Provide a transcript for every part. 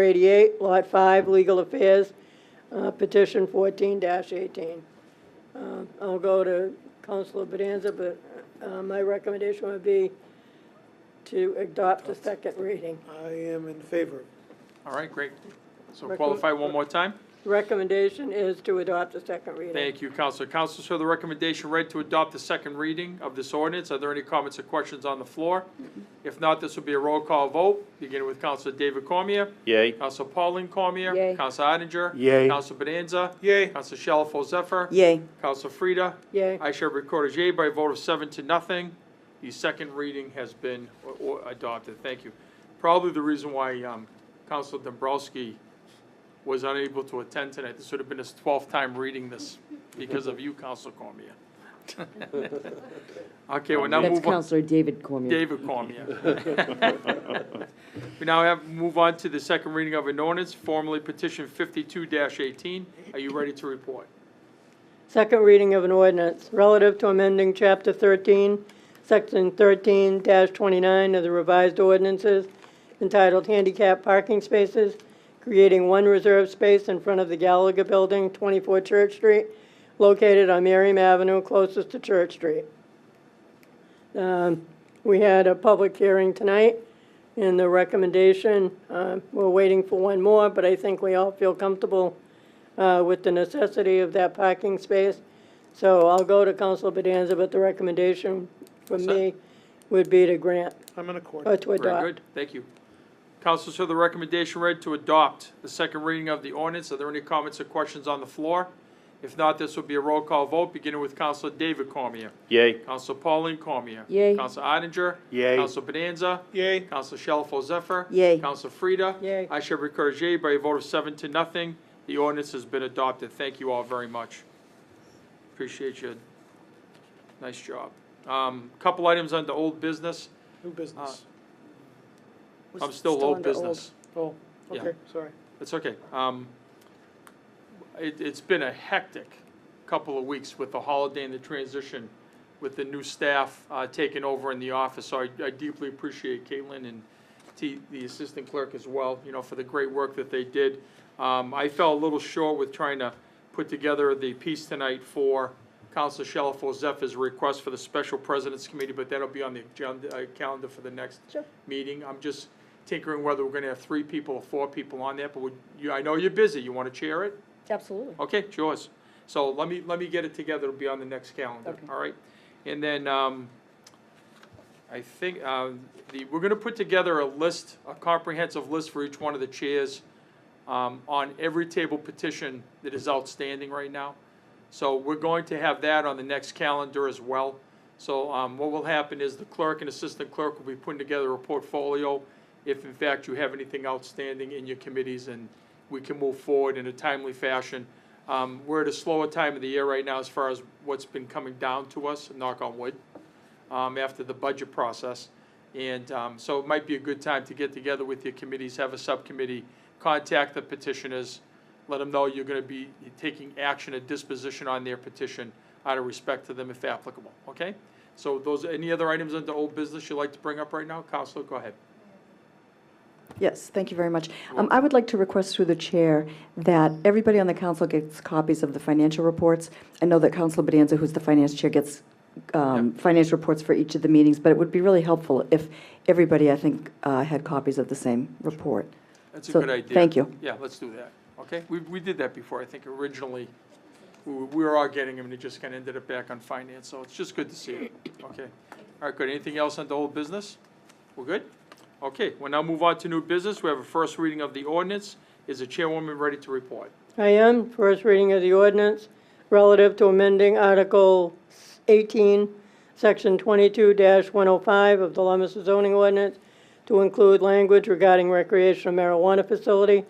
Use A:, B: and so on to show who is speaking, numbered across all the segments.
A: 488, Lot 5, Legal Affairs, uh, petition 14-18. Um, I'll go to Counselor Bonanza, but uh, my recommendation would be to adopt the second reading.
B: I am in favor.
C: All right, great. So
A: Recommend-
C: qualify one more time.
A: Recommendation is to adopt the second reading.
C: Thank you, Counselor. Counselors, for the recommendation read to adopt the second reading of this ordinance. Are there any comments or questions on the floor? If not, this will be a roll call vote, beginning with Counselor David Cormier.
D: Yay.
C: Counselor Pauline Cormier.
A: Yay.
C: Counselor Odinger.
D: Yay.
C: Counselor Bonanza.
B: Yay.
C: Counselor Shalfo Zephyr.
E: Yay.
C: Counselor Frida.
A: Yay.
C: I shall record as yea by a vote of seven to nothing. The second reading has been o- o- adopted. Thank you. Probably the reason why um, Counselor Dombrowski was unable to attend tonight. This would have been his 12th time reading this because of you, Counselor Cormier. Okay, we'll now
E: That's
C: move on.
E: Counselor David Cormier.
C: David Cormier. We now have, move on to the second reading of an ordinance, formally petition 52-18. Are you ready to report?
A: Second reading of an ordinance relative to amending Chapter 13, Section 13-29 of the revised ordinances entitled Handicap Parking Spaces, creating one reserved space in front of the Gallagher Building, 24 Church Street, located on Merriam Avenue, closest to Church Street. Um, We had a public hearing tonight, and the recommendation, uh, we're waiting for one more, but I think we all feel comfortable uh, with the necessity of that parking space. So I'll go to Council Bedanza, but the recommendation from
C: that?
A: me would be to grant,
B: I'm in accord.
A: or to
C: Very
A: adopt.
C: good, thank you. Councilors, for the recommendation read to adopt the second reading of the ordinance. Are there any comments or questions on the floor? If not, this will be a roll call vote, beginning with Counselor David Cormier.
D: Yay.
C: Counselor Pauline Cormier.
E: Yay.
C: Counselor Odenger.
D: Yay.
C: Counselor Bonanza.
B: Yay.
C: Counselor Shalfo Zephyr.
E: Yay.
C: Counselor Frida.
A: Yay.
C: I shall record as yea by a vote of seven to nothing. The ordinance has been adopted. Thank you all very much. Appreciate you. Nice job. Um, Couple items under old business.
B: New business.
E: Was
C: I'm
E: it
C: still old
E: under
C: business.
B: Oh,
C: yeah.
B: okay, sorry.
C: It's okay. Um, It, it's been a hectic couple of weeks with the holiday and the transition, with the new staff uh, taking over in the office. So I I deeply appreciate Caitlin and T- the assistant clerk as well, you know, for the great work that they did. Um, I fell a little short with trying to put together the piece tonight for Counselor Shalfo Zephyr's request for the Special Presidents Committee, but that'll be on the agenda, uh, calendar for the next
A: Sure.
C: meeting. I'm just tinkering whether we're gonna have three people or four people on there, but would, you, I know you're busy, you wanna chair it?
A: Absolutely.
C: Okay, it's yours. So let me, let me get it together, it'll be on the next calendar, all right? And then, um, I think, um, the, we're gonna put together a list, a comprehensive list for each one of the chairs, um, on every table petition that is outstanding right now. So we're going to have that on the next calendar as well. So, um, what will happen is the clerk and assistant clerk will be putting together a portfolio if in fact you have anything outstanding in your committees and we can move forward in a timely fashion. Um, we're at a slower time of the year right now as far as what's been coming down to us, knock on wood um, after the budget process. And um, so it might be a good time to get together with your committees, have a subcommittee, contact the petitioners, let them know you're going to be taking action and disposition on their petition out of respect to them if applicable, okay? So those, any other items under old business you'd like to bring up right now? Counselor, go ahead.
F: Yes, thank you very much. Um, I would like to request through the chair that everybody on the council gets copies of the financial reports. I know that Council Bedanza, who's the finance chair, gets um, finance reports for each of the meetings, but it would be really helpful if everybody, I think, uh, had copies of the same report.
C: That's a
F: So,
C: good idea.
F: thank you.
C: Yeah, let's do that, okay? We, we did that before, I think originally, we, were- we were all getting them, and it just kind of ended up back on finance, so it's just good to see it, okay? All right, good, anything else on the old business? We're good? Okay, we'll now move on to new business, we have a first reading of the ordinance, is the chairwoman ready to report?
A: I am. First reading of the ordinance relative to amending Article 18, Section 22-105 of the Lummester zoning ordinance to include language regarding recreational marijuana facility.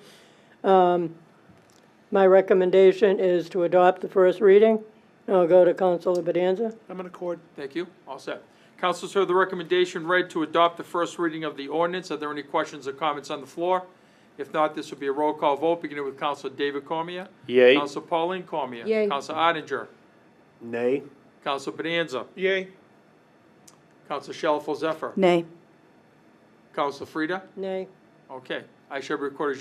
A: Um, My recommendation is to adopt the first reading. I'll go to Counselor Bedanza.
B: I'm in accord.
C: Thank you, all set. Councilors heard the recommendation read to adopt the first reading of the ordinance, are there any questions or comments on the floor? If not, this will be a roll call vote, beginning with Counselor David Cormier.
D: Yay.
C: Counselor Pauline Cormier.
E: Yay.
C: Counselor Odenger.
D: Nay.
C: Counselor Bonanza.
B: Yay.
C: Counselor Shalfo Zephyr.
F: Nay.
C: Counselor Frida.
A: Nay.
C: Okay. I shall record as